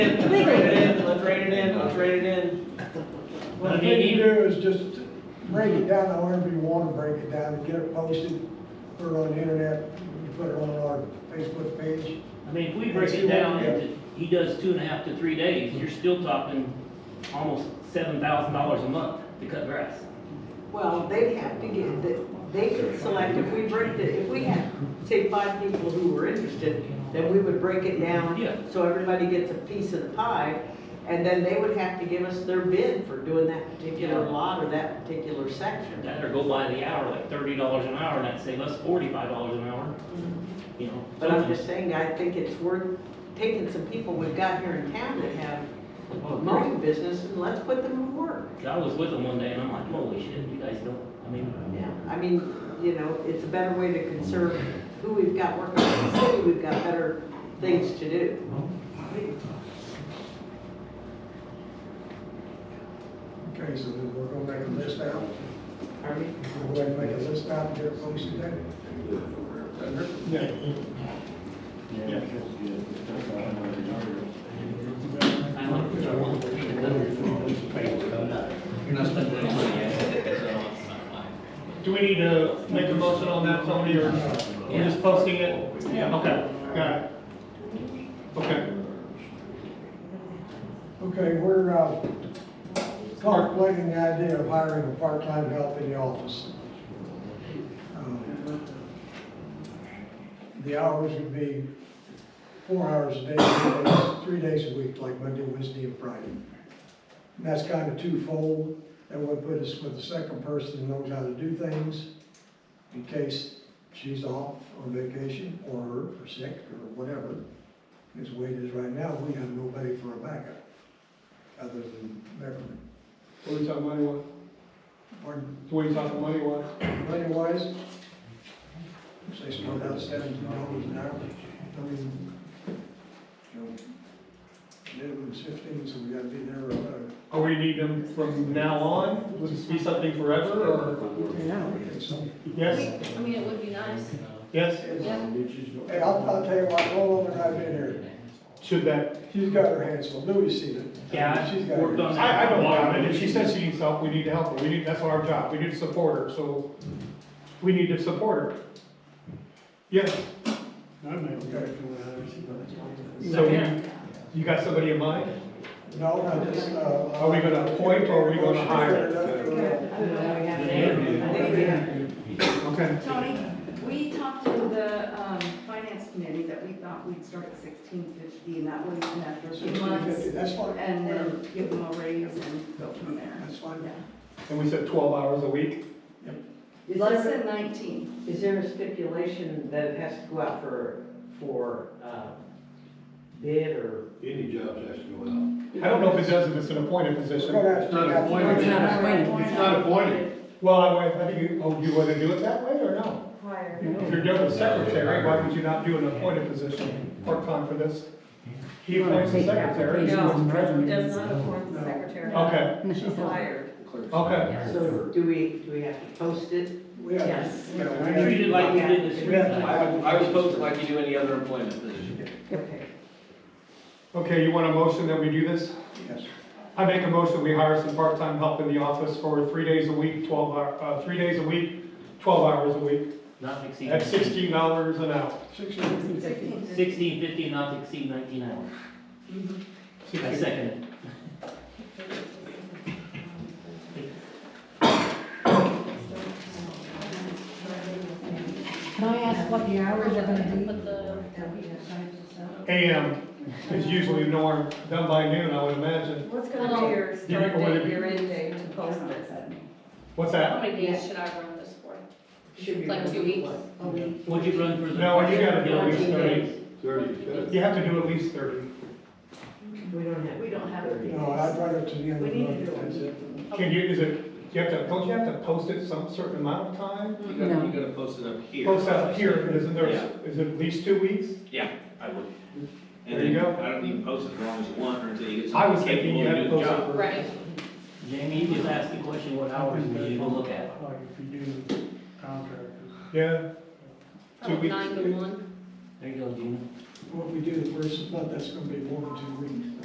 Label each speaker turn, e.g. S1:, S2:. S1: it in, I'll trade it in.
S2: Well,
S3: I
S2: the
S3: mean,
S2: thing to
S3: even-
S2: do is just break it down however you want to break it down, get it posted, put it on the internet, you put it on our Facebook page.
S3: I mean, if we break it down, into- he does two and a half to three days, you're still talking almost seven thousand dollars a month to cut grass.
S4: Well, they have to get, the- they could select, if we break it, if we had, say, five people who were interested, then we would break it down.
S3: Yeah.
S4: So everybody gets a piece of the pie, and then they would have to give us their bid for doing that particular
S3: Yeah.
S4: lot or that particular section.
S3: That or go by the hour, like thirty dollars an hour, and that'd save us forty-five dollars an hour, you know.
S4: Mm-hmm. But I'm
S3: something.
S4: just saying, I think it's worth taking some people we've got here in town that have mowing business, and let's put them to work.
S3: I was with him one day and I'm like, holy shit, you guys don't, I mean,
S4: Yeah, I mean, you know, it's a better way to conserve who we've got working in the city, we've got better things to do.
S2: Okay, so then we're gonna make a list out,
S4: Pardon me?
S2: we're going to make a list out and get it posted then.
S3: I like, I want to read the
S5: You're not spending any money yet.
S6: Do we need to make a motion on that, somebody, or we're just posting it?
S3: Yeah.
S6: Okay, got it. Okay.
S2: Okay, we're, uh, contemplating the idea of hiring a part-time help in the office. Um, The hours would be four hours a day, three days- three days a week, like Monday, Wednesday, and Friday. And that's kind of twofold, that would put us with a second person who knows how to do things, in case she's off on vacation, or, or sick, or whatever. As the way it is right now, we have nobody for a backup other than Beverly.
S6: What are we talking money wise?
S2: Pardon,
S6: What are you talking money wise?
S2: money wise, they start out seventeen dollars an hour, I mean, you know, minimum's fifteen, so we gotta be there uh, about,
S6: Are we need them from now on? Will this be something forever, or?
S2: okay, so.
S6: Yes,
S7: I mean, it would be nice,
S6: yes?
S7: yeah.
S2: Hey, I'll, I'll tell you what, Lola and I've been here,
S6: Should that?
S2: she's got her hands full, Louis seen it.
S3: Yeah, I
S2: She's got
S3: worked
S2: her-
S3: on that.
S6: I, I don't know, and if she says she needs help, we need to help her. We need, that's our job. We need to support her, so we need to support her. Yes,
S2: Okay.
S6: so we- you got somebody in mind?
S2: No, I just, uh.
S6: Are we gonna appoint or are we gonna hire?
S7: I don't know.
S4: I think we have-
S6: Okay.
S8: Tony, we talked to the um, finance committee that we thought we'd start at sixteen fifty, and that was in after a few
S2: Sixteen fifty,
S8: months.
S2: that's fine.
S8: And uh, then give them a raise and go from there.
S2: That's fine.
S6: And we said twelve hours a week?
S4: Is
S8: Less
S4: there,
S8: than nineteen.
S4: is there a stipulation that it has to go out for, for, uh, bid or?
S5: Any jobs has to go out.
S6: I don't know if it does if it's an appointed
S2: We're
S6: position.
S2: gonna have
S5: It's
S2: to.
S5: not appointed. It's not appointed. It's not appointed.
S6: Well, I, I think, you- oh, you want to do it that way or no? If you're doing a secretary, why would you not do an appointed position, part-time for this? He appoints the secretary. she appoints the president.
S7: does not appoint the secretary.
S6: Okay,
S7: She's hired.
S6: okay.
S4: So do we, do we have to post it?
S2: We have-
S7: Yes.
S2: we have-
S3: Treat it like you did the
S2: We have to-
S3: street.
S1: I would, I would post it like you do any other employment position.
S4: Okay.
S6: Okay, you want a motion that we do this?
S2: Yes.
S6: I make a motion, we hire some part-time help in the office for three days a week, twelve hour, uh, three days a week, twelve hours a week,
S3: Not to exceed.
S6: at sixteen dollars an hour.
S2: Sixteen.
S7: Sixteen fifty.
S3: Sixteen fifty, not to exceed nineteen hours.
S4: Mm-hmm.
S3: I second it.
S9: Can I ask what the hours are gonna be?
S7: But the-
S6: AM is usually no more done by noon, I would imagine.
S9: What's
S7: Well,
S9: gonna be your
S6: you
S9: start
S6: want to
S9: date,
S6: be-
S9: your end date to post this?
S6: What's
S7: How
S6: that?
S7: many days should I run this for?
S4: Should be.
S7: Like two weeks? A week?
S3: What'd you run for the?
S6: No, you gotta do at least
S3: Yeah.
S6: thirty.
S5: Thirty, good.
S6: You have to do at least thirty.
S4: We don't have.
S7: We don't have it.
S2: No, I'd run it to the end
S4: We
S2: of the
S4: need to
S2: month.
S4: do
S2: that's it.
S4: it.
S6: Can you, is it, do you have to, don't you have to post it some certain amount of time?
S1: You gotta, you gotta post it up here.
S6: Post out here, isn't there,
S1: Yeah.
S6: is it at least two weeks?
S1: Yeah, I would. And
S6: There you
S1: then
S6: go.
S1: I don't even post it as long as you want or until you get
S6: I was
S1: someone
S6: thinking
S1: capable
S6: you
S1: of
S6: had to
S1: doing the
S6: post it
S1: job.
S6: for.
S7: Right.
S3: Jamie, you just asked the question, what hours do you look at?
S10: Like if you do contractors.
S6: Yeah. Two
S7: Probably
S6: weeks.
S7: Oh, nine to one.
S3: There you go, Gina.
S2: Well, if we do the first month, that's gonna be more than two weeks.